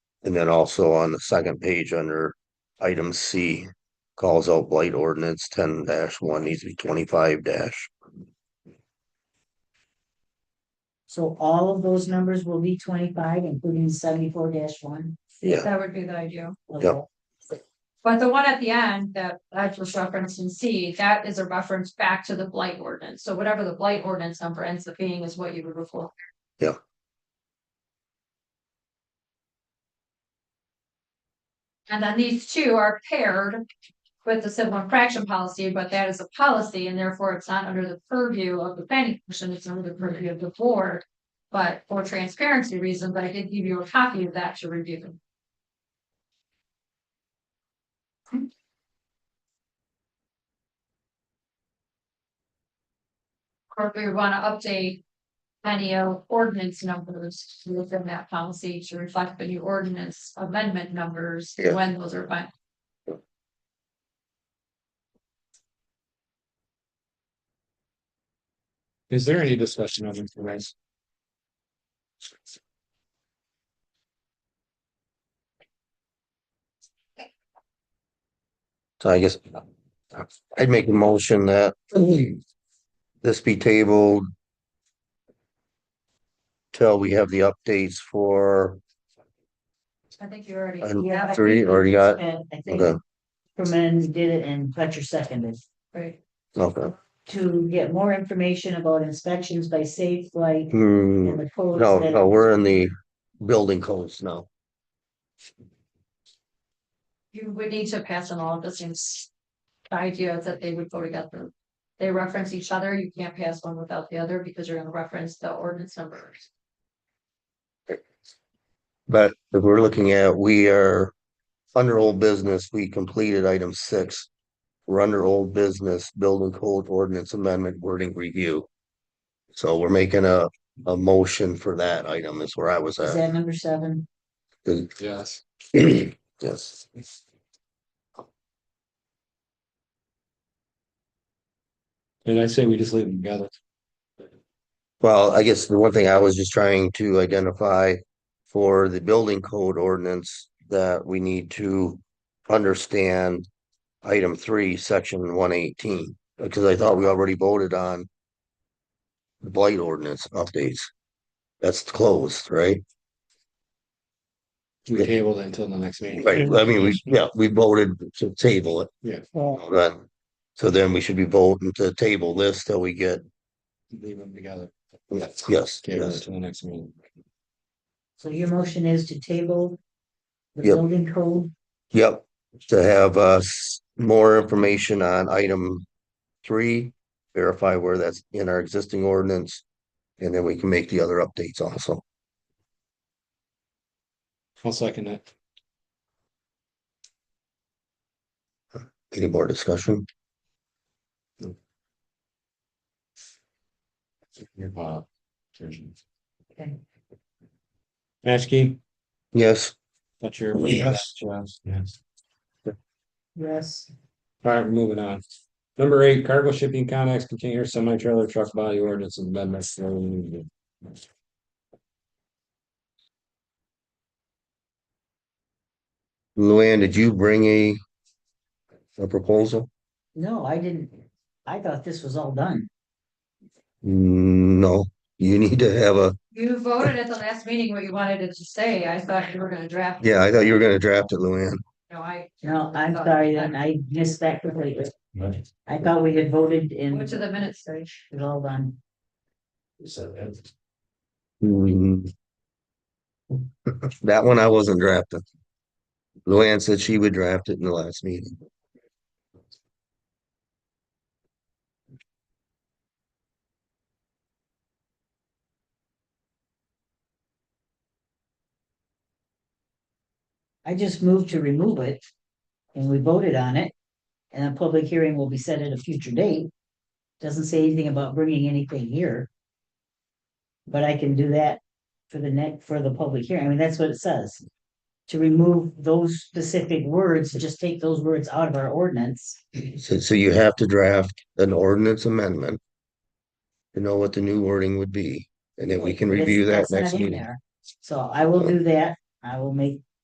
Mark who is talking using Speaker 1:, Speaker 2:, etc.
Speaker 1: And then also on the second page under item C, calls out blight ordinance ten one needs to be twenty-five dash.
Speaker 2: So all of those numbers will be twenty-five, including seventy-four one.
Speaker 1: Yeah,
Speaker 3: That would be the ideal.
Speaker 1: Yep.
Speaker 3: But the one at the end that I just referenced in C, that is a reference back to the blight ordinance. So whatever the blight ordinance number ends up being is what you would report.
Speaker 1: Yeah.
Speaker 3: And then these two are paired with the civil infraction policy, but that is a policy and therefore it's not under the purview of the planning commission, it's under the purview of the board. But for transparency reasons, I did give you a copy of that to review. Or if we wanna update any of ordinance numbers within that policy to reflect the new ordinance amendment numbers,
Speaker 1: Yeah.
Speaker 3: when those are final.
Speaker 4: Is there any discussion on this, guys?
Speaker 1: so I guess I'd make a motion that this be tabled till we have the updates for,
Speaker 3: I think you already.
Speaker 1: And
Speaker 3: yeah, I
Speaker 1: three,
Speaker 3: think-
Speaker 1: already got-
Speaker 2: I think
Speaker 1: okay,
Speaker 2: Herman did it and Fletcher seconded.
Speaker 3: Right.
Speaker 1: okay.
Speaker 2: To get more information about inspections by safe flight
Speaker 1: Hmm.
Speaker 2: and the codes.
Speaker 1: No,
Speaker 2: that-
Speaker 1: no, we're in the building codes now.
Speaker 3: You would need to pass on all of the same s- ideas that they would go together. They reference each other, you can't pass one without the other because you're gonna reference the ordinance numbers.
Speaker 1: But if we're looking at, we are under old business, we completed item six. We're under old business, building code ordinance amendment wording review. So we're making a, a motion for that item is where I was
Speaker 2: Is
Speaker 1: at.
Speaker 2: that number seven?
Speaker 4: Yes.
Speaker 1: Yes,
Speaker 4: And I say we just leave them together.
Speaker 1: well, I guess the one thing I was just trying to identify for the building code ordinance that we need to understand item three, section one eighteen, because I thought we already voted on the blight ordinance updates. That's closed, right?
Speaker 4: We table it until the next meeting.
Speaker 1: Right, I mean, we, yeah, we voted to table it.
Speaker 4: Yeah.
Speaker 1: Right. So then we should be voting to table this till we get,
Speaker 4: Leave them together.
Speaker 1: yes, yes,
Speaker 4: Table it
Speaker 1: yes,
Speaker 4: till the next meeting.
Speaker 2: So your motion is to table the
Speaker 1: Yep.
Speaker 2: building code
Speaker 1: yep. To have us more information on item three, verify where that's in our existing ordinance. And then we can make the other updates also.
Speaker 4: I'll second it.
Speaker 1: Any more discussion?
Speaker 4: Bob.
Speaker 2: Okay.
Speaker 4: Maskey,
Speaker 1: Yes,
Speaker 4: Fletcher.
Speaker 1: Yes.
Speaker 4: Yes, yes.
Speaker 2: yes,
Speaker 4: All right, we're moving on. Number eight, cargo shipping connex container semi trailer truck body ordinance amendments.
Speaker 1: Luann, did you bring a a proposal?
Speaker 2: no, I didn't, I thought this was all done.
Speaker 1: No, you need to have a,
Speaker 3: You voted at the last meeting what you wanted it to say. I thought you were gonna draft.
Speaker 1: yeah, I thought you were gonna draft it, Luann.
Speaker 3: No, I
Speaker 2: No, I'm sorry, then I missed that completely.
Speaker 4: Right.
Speaker 2: I thought we had voted and
Speaker 3: went to
Speaker 2: it
Speaker 3: the minutes stage.
Speaker 2: was all done.
Speaker 1: Mm. That one I wasn't drafting. Luann said she would draft it in the last meeting.
Speaker 2: I just moved to remove it. And we voted on it. And a public hearing will be set at a future date. Doesn't say anything about bringing anything here. But I can do that for the next, for the public hearing. I mean, that's what it says. To remove those specific words, to just take those words out of our ordinance.
Speaker 1: So, so you have to draft an ordinance amendment. To know what the new wording would be, and then we can
Speaker 2: It's-
Speaker 1: review that
Speaker 2: that's not
Speaker 1: next
Speaker 2: in
Speaker 1: meeting.
Speaker 2: there. So I will do that. I will make